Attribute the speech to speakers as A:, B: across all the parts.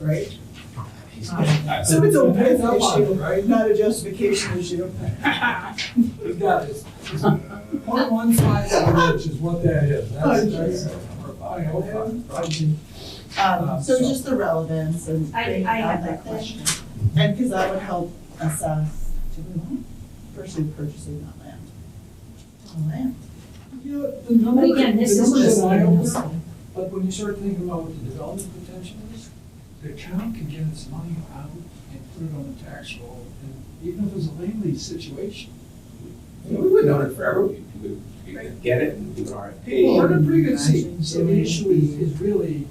A: right?
B: He's-
A: Uh, So it's a width issue, not a justification issue.
C: We got this. Point one five of an inch is what that is. That's, that's. I hope I- I can-
A: Um, so just the relevance and.
D: I-
A: they
D: I have
A: that
D: that
A: question. And because that would help assess, do we want to pursue purchasing that land? On land.
C: You know, the number,
D: But again, this
C: the
D: is
C: number is
D: just.
C: eye opener, but when you start thinking about what the development potential is, the town can get its money out and put it on the tax roll, and even if it was a land lease situation.
B: We would own it forever, we we would we could get it and do an
C: Well, we're in a
B: RFP.
C: pretty good seat, so the issue is, is really,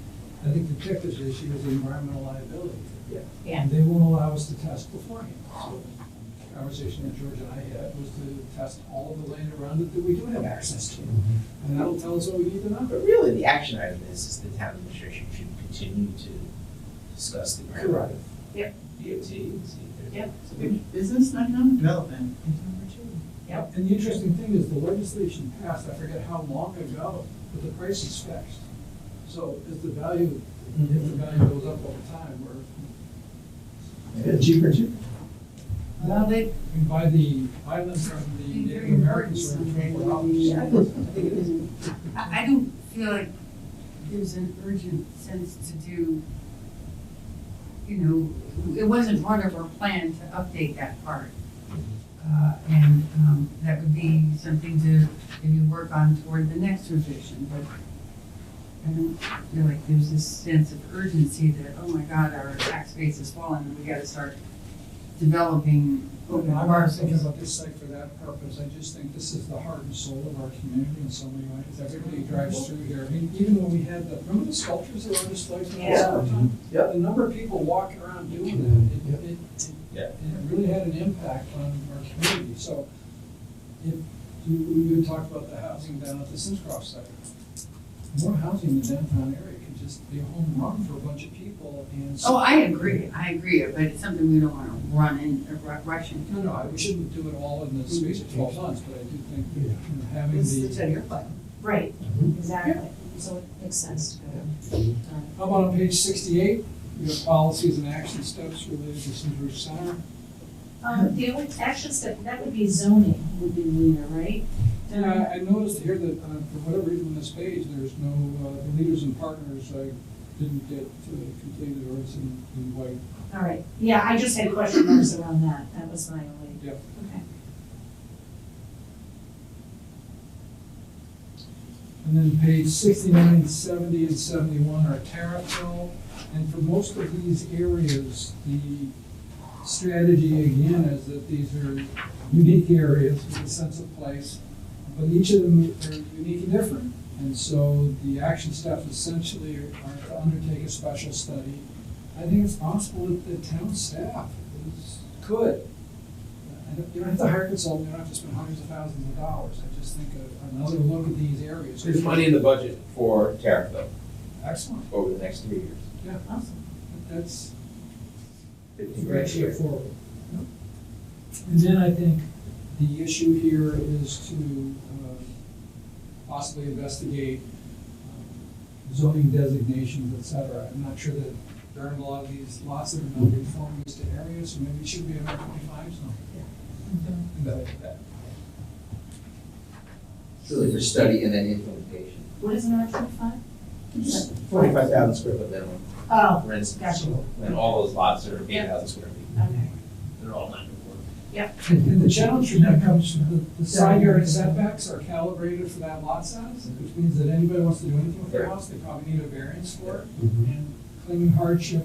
C: I think the Texas issue is environmental liability.
B: Yeah.
D: Yeah.
C: And they won't allow us to test beforehand, so the conversation that George and I had was to test all of the land around it that we do have access to. And that'll tell us what we need to know.
B: But really, the action item is, is the town administration should continue to discuss the grant.
C: Correct.
D: Yep.
B: DOT and see if there's.
D: Yep.
B: Yep.
A: Business and economic development is number two.
C: And the interesting thing is, the legislation passed, I forget how long ago, but the price is fixed. So if the value, if the value goes up over time, we're,
B: Cheaper, cheaper.
C: Now they. By the island from the Native Americans for twenty-four dollars.
E: I, I don't feel like there's an urgent sense to do, you know, it wasn't part of our plan to update that part. Uh, and, um, that would be something to maybe work on toward the next revision, but I don't feel like there's this sense of urgency that, oh my God, our tax base is falling and we gotta start developing open
C: I'm not thinking
E: parcels.
C: about this site for that purpose, I just think this is the heart and soul of our community in so many ways, everybody drives through here, I mean, even when we had the, remember the sculptures that were displayed for the
D: Yeah.
C: summertime?
B: Yeah.
C: The number of people walking around doing that, it, it, it-
B: Yeah.
C: it really had an impact on our community, so. If, you, we would talk about the housing down at the Simscroft site. More housing in the downtown area could just be a home run for a bunch of people and.
E: Oh, I agree, I agree, but it's something we don't wanna run in, ru- rush into.
C: No, no, I- we shouldn't do it all in the space of twelve months, but I do think you know, having
A: This is the
C: the,
A: ten-year plan.
D: Right, exactly. So it makes sense to go. Mm-hmm.
C: how about on page sixty-eight, you have policies and action steps related to Simsbury Center?
D: Um, the only action step, that would be zoning would be leader, right?
C: And I, I noticed here that, uh, for whatever reason on this page, there's no, uh, the leaders and partners, I didn't get uh, completed or it's in, in white.
D: All right, yeah, I just had question marks around that. That was my only.
C: Yep.
D: Okay.
C: And then page 69, 70, and seventy-one are Terrifil. And for most of these areas, the strategy again is that these are unique areas with a sense of place. But each of them are unique and different. And so the action steps essentially are to undertake a special study. I think it's possible that the town staff is, could. I don't- You don't have to hire a consultant, you don't have to spend hundreds of thousands of dollars. I just think a- another look at these areas.
B: There's money in the budget for tariff though,
C: Excellent.
B: over the next three years.
A: Awesome.
C: That's
B: Fifty grand
C: very
B: a year.
C: straightforward. And then I think the issue here is to um, possibly investigate um, zoning designations, et cetera. I'm not sure that there aren't a lot of these lots that are non-conforming to areas, so maybe it should be about twenty-five zone.
B: That- that-
F: Really for study and then implementation.
D: What is an R twenty-five?
B: Forty-five thousand square
F: But
B: foot,
F: then on
D: Oh,
B: for instance,
D: gotcha,
B: and all those lots are eight thousand square feet.
D: okay.
B: They're all non-conforming.
C: And the challenge from that comes from the- the side yard setbacks are calibrated for that lot size, which means that anybody wants to do anything with their house, they probably need a variance for it. And claiming hardship,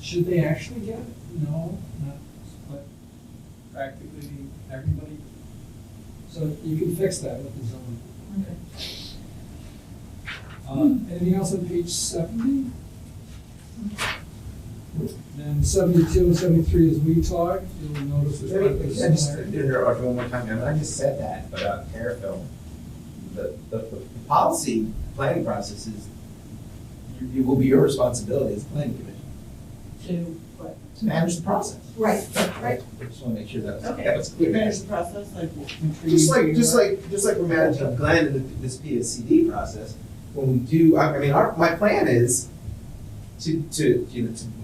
C: should they actually get it? No, not, but practically everybody. So you can fix that with the zoning.
D: Okay.
C: Uh, Anything else on page seventy? Mm-hmm. Then seventy-two and seventy-three is we talk, you'll notice there's quite a bit of
B: I just
C: similarity.
B: did it one more time, and I just said that, but on Terrafilm, the, the, the policy planning process is, it will be your responsibility as a planning commission
D: To what?
B: to manage the process.
D: Right, right.
B: I just wanna make sure that was,
D: Okay.
B: that was
A: We
B: clear.
A: manage the process like. when trees
B: Just like, just
A: grow.
B: like, just like we're managing Glenn and the- this PSCD process, when we do, I, I mean, our, my plan is to, to, you know, to